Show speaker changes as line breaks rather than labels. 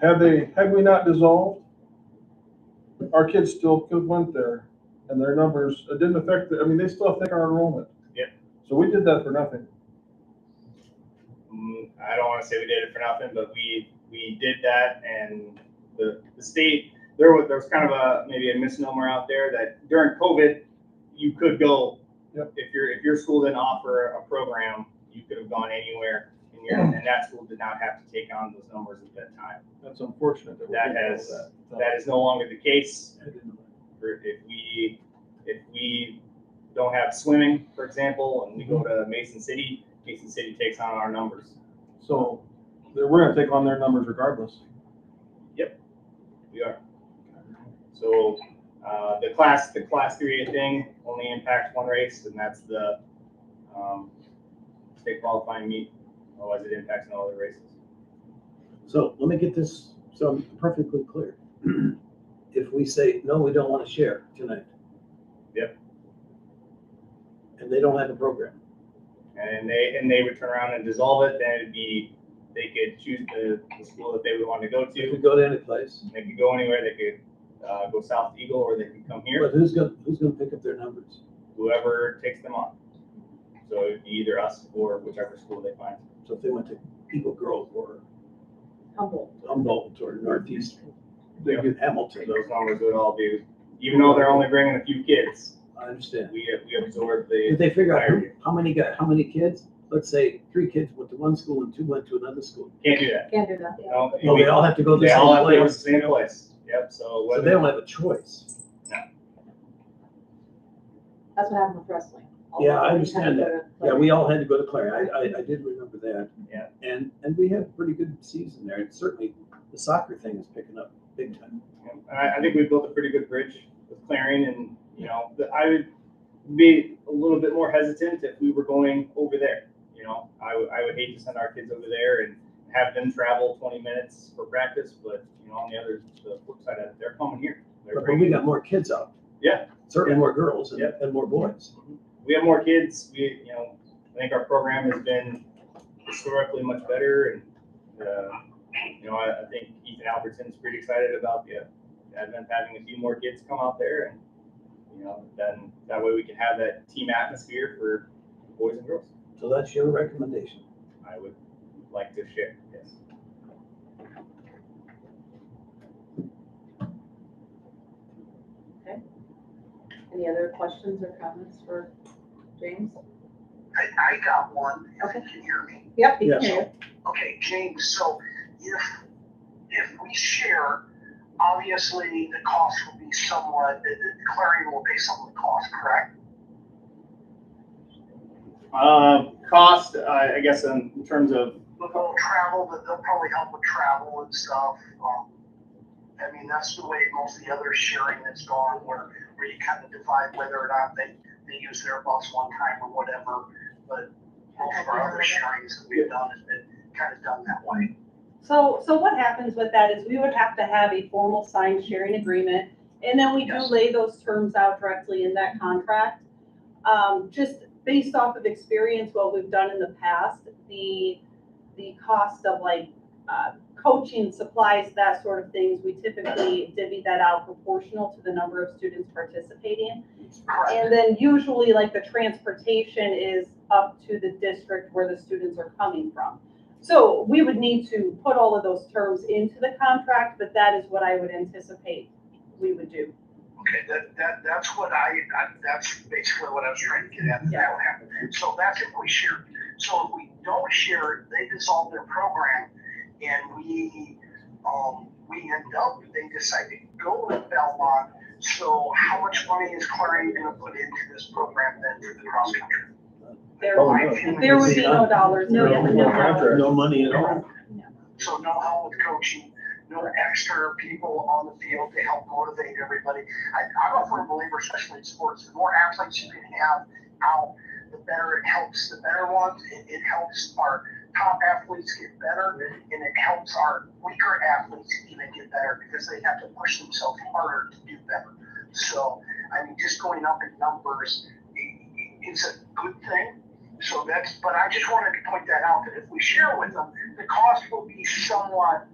Had they, had we not dissolved, our kids still could went there and their numbers, it didn't affect, the- I mean, they still affect our enrollment.
Yeah.
So we did that for nothing.
Mm, I don't want to say we did it for nothing, but we we did that, and the the state there was there was kind of a maybe a misnomer out there that during COVID you could go
Yep.
if your if your school didn't offer a program you could have gone anywhere and, your, and that school did not have to take on those numbers at that time.
That's unfortunate. we
That
didn't know
has- That is no longer the case.
I didn't know that.
For- If we if we don't have swimming, for example, and we go to Mason City, Mason City takes on our numbers.
So they- we're gonna take on their numbers regardless.
We are. So, uh, the class, the class three A thing only impacts one race and that's the, um, state qualifying meet. Otherwise it impacts no other races.
So let me get this, so I'm perfectly clear. If we say, no, we don't want to share tonight.
Yep.
And they don't have a program.
And they, and they would turn around and dissolve it, then it'd be, they could choose the, the school that they would want to go
If
to.
we go to any place,
They could go anywhere, they could, uh, go south to Eagle or they could come here,
but who's gonna, who's gonna pick up their numbers?
whoever takes them on. So it'd be either us or whichever school they find.
So if they went to Eagle Grove or
Humble.
Humboldt or Northeast
They get,
Hamilton,
Those numbers would all be, even though they're only bringing a few kids,
I understand.
we, we absorb the,
If they figure out who- how many got, how many kids, let's say three kids went to one school and two went to another school.
can't do that.
Can't do that.
No,
No, they all have to go to the
They all
same
have to go to the same
place.
place, yep, so
So they don't
whether,
have a choice.
That's what happened with wrestling.
Yeah, I
Although we
understand
had to go
Yeah,
to-
we all had to go to Clary. I, I, I did remember that.
Yeah.
And, and we had a pretty good season there. And certainly the soccer thing is picking up big time.
and I, I think we built a pretty good bridge with Clarion and, you know, the- I would be a little bit more hesitant if we were going over there, you know? I would, I would hate to send our kids over there and have them travel twenty minutes for practice, but, you know, on the other, the flip side of it, they're coming here. They're
But but we
bringing-
got more kids out.
Yeah.
Certainly more girls and,
Yeah.
and more boys.
we have more kids. We, you know, I think our program has been historically much better, and uh, you know, I, I think Ethan Albertson's pretty excited about the uh, advent of having a few more kids come out there, and you know, then that way we can have that team atmosphere for boys and girls.
So that's your recommendation.
I would like to share. Yes.
Any other questions or comments for James?
I, I got one, if you can hear me.
Yep, he
Yeah.
can hear
Okay, James, so if, if we share, obviously the cost will be somewhat, the, the Clarion will pay some of the cost, correct?
Um, cost, I, I guess, in, in terms of
The whole travel, that they'll probably help with travel and stuff. Um, I mean, that's the way most of the other sharing that's gone, where, where you kind of divide whether or not they, they use their bus one time or whatever. But most of our other sharings that we've done has been kind of done that way.
So, so what happens with that is we would have to have a formal signed sharing agreement, and then we do
Yes.
lay those terms out directly in that contract. Um, just based off of experience, what we've done in the past, the, the cost of like, uh, coaching supplies, that sort of things, we typically divvy that out proportional to the number of students participating.
Correct.
And then usually like the transportation is up to the district where the students are coming from. So we would need to put all of those terms into the contract, but that is what I would anticipate we would do.
Okay, that, that, that's what I, I- that's basically what I was trying to get at, that that would happen. So that's if we share. So if we don't share, they dissolve their program and we, um, we end up, they decide to go with Belmont. So how much money is Clarion gonna put into this program then for the cross country?
There,
Oh,
no.
there would be no dollars.
No,
in it.
no contract.
No money at all.
So no help with coaching, no extra people on the field to help motivate everybody. I, I'm a firm believer, especially in sports, the more athletes you can have out, the better it helps the better ones. It, it helps our top athletes get better, and it helps our weaker athletes even get better because they have to push themselves harder to do better. So, I mean, just going up in numbers i- i- is a good thing. So that's, but I just wanted to point that out that if we share with them, the cost will be somewhat